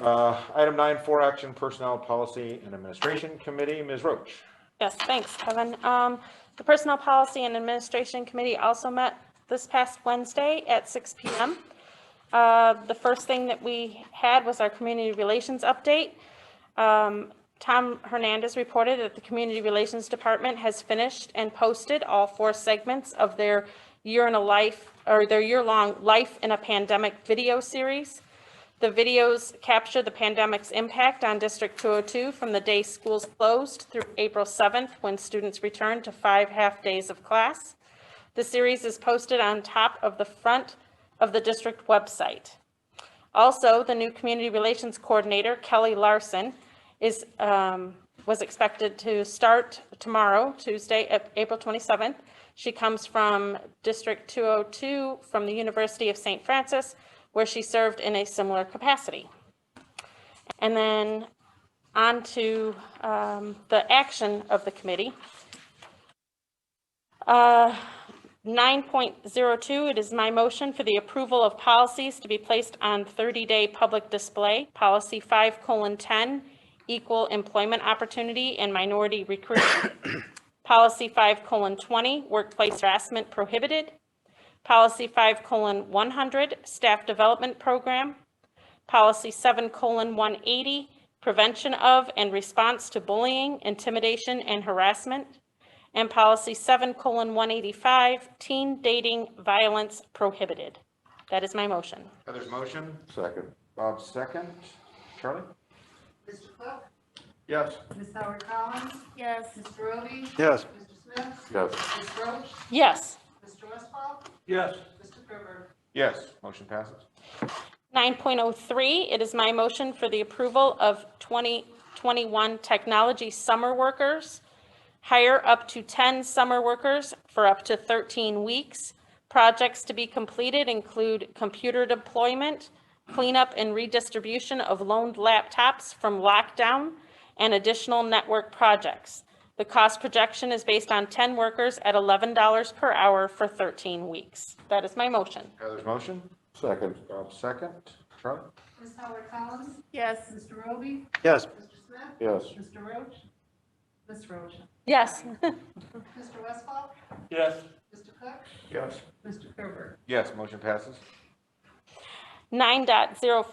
Uh, Item nine, four action personnel policy and administration committee, Ms. Roach. Yes, thanks, Kevin. Um, The Personnel Policy and Administration Committee also met this past Wednesday at 6 PM. Uh, The first thing that we had was our community relations update. Um, Tom Hernandez reported that the Community Relations Department has finished and posted all four segments of their year in a life, or their year-long Life in a Pandemic video series. The videos capture the pandemic's impact on District 202 from the day schools closed through April 7th, when students returned to five half-days of class. The series is posted on top of the front of the district website. Also, the new Community Relations Coordinator, Kelly Larson, is, um, was expected to start tomorrow, Tuesday, Ap- April 27th. She comes from District 202, from the University of St. Francis, where she served in a similar capacity. And then on to um, the action of the committee. Uh, 9.02, it is my motion for the approval of policies to be placed on 30-day public display. Policy 5:10, equal employment opportunity and minority recruitment. Policy 5:20, workplace harassment prohibited. Policy 5:100, staff development program. Policy 7:180, prevention of and response to bullying, intimidation, and harassment and policy seven colon one eighty-five, teen dating violence prohibited. That is my motion. Heather's motion. Second. Bob's second. Charlie? Mr. Cook? Yes. Ms. Howard Collins? Yes. Mr. Roby? Yes. Mr. Smith? Yes. Ms. Roach? Yes. Mr. Westphal? Yes. Mr. Gerber? Yes, motion passes. Nine point oh three, it is my motion for the approval of twenty twenty-one technology summer workers. Hire up to ten summer workers for up to thirteen weeks. Projects to be completed include computer deployment, cleanup and redistribution of loaned laptops from lockdown, and additional network projects. The cost projection is based on ten workers at eleven dollars per hour for thirteen weeks. That is my motion. Heather's motion. Second. Bob's second. Charlie? Ms. Howard Collins? Yes. Mr. Roby? Yes. Mr. Smith? Yes. Mr. Roach? Ms. Roach? Yes. Mr. Westphal? Yes. Mr. Cook? Yes. Mr. Gerber? Yes, motion passes. 9.04,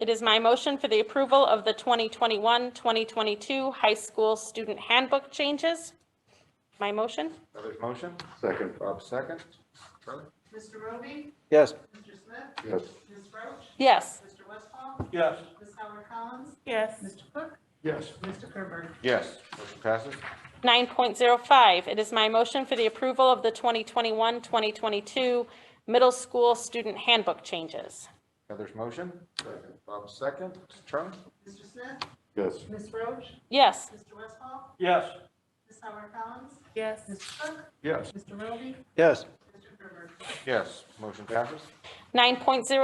it is my motion for the approval of the 2021-2022 high school student handbook changes. My motion? Heather's motion. Second. Bob's second. Charlie? Mr. Roby? Yes. Mr. Smith? Yes. Ms. Roach? Yes. Mr. Westphal? Yes. Ms. Howard Collins? Yes. Mr. Cook? Yes. Mr. Gerber? Yes, motion passes. 9.05, it is my motion for the approval of the 2021-2022 middle school student handbook changes. Heather's motion. Second. Bob's second. Charlie? Mr. Smith? Yes. Ms. Roach? Yes. Mr. Westphal? Yes. Ms. Howard Collins? Yes. Mr. Cook? Yes. Mr. Roby? Yes. Mr. Gerber? Yes, motion passes. 9.06,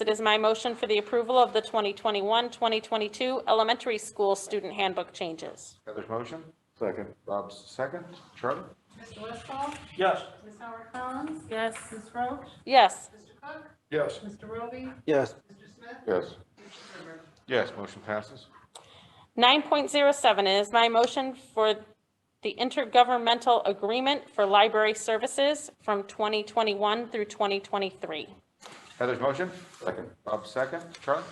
it is my motion for the approval of the 2021-2022 elementary school student handbook changes. Heather's motion. Second. Bob's second. Charlie? Mr. Westphal? Yes. Ms. Howard Collins? Yes. Ms. Roach? Yes. Mr. Cook? Yes. Mr. Roby? Yes. Mr. Smith? Yes. Mr. Gerber? Yes, motion passes. 9.07 is my motion for the intergovernmental agreement for library services from 2021 through 2023. Heather's motion? Second. Bob's second. Charlie?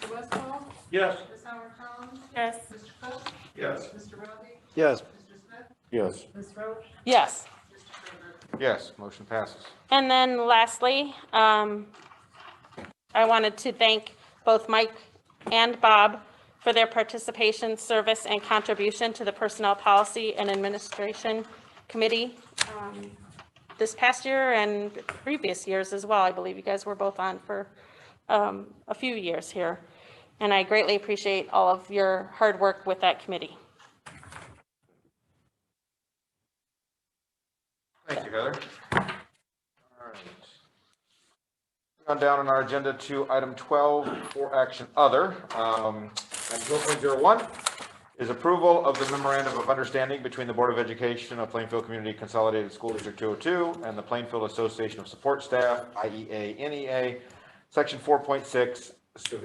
Mr. Westphal? Yes. Ms. Howard Collins? Yes. Mr. Cook? Yes. Mr. Roby? Yes. Mr. Smith? Yes. Ms. Roach? Yes. Mr. Gerber? Yes, motion passes. And then lastly, um, I wanted to thank both Mike and Bob for their participation, service, and contribution to the Personnel Policy and Administration Committee um, this past year and previous years as well. I believe you guys were both on for um, a few years here. And I greatly appreciate all of your hard work with that committee. Thank you, Heather. All right. On down on our agenda to item 12 for action other. Um, Item 12.01 is approval of the memorandum of understanding between the Board of Education of Plainfield Community Consolidated School District 202 and the E Plainfield Association of Support Staff, IEA, NEA, Section 4.6, Severe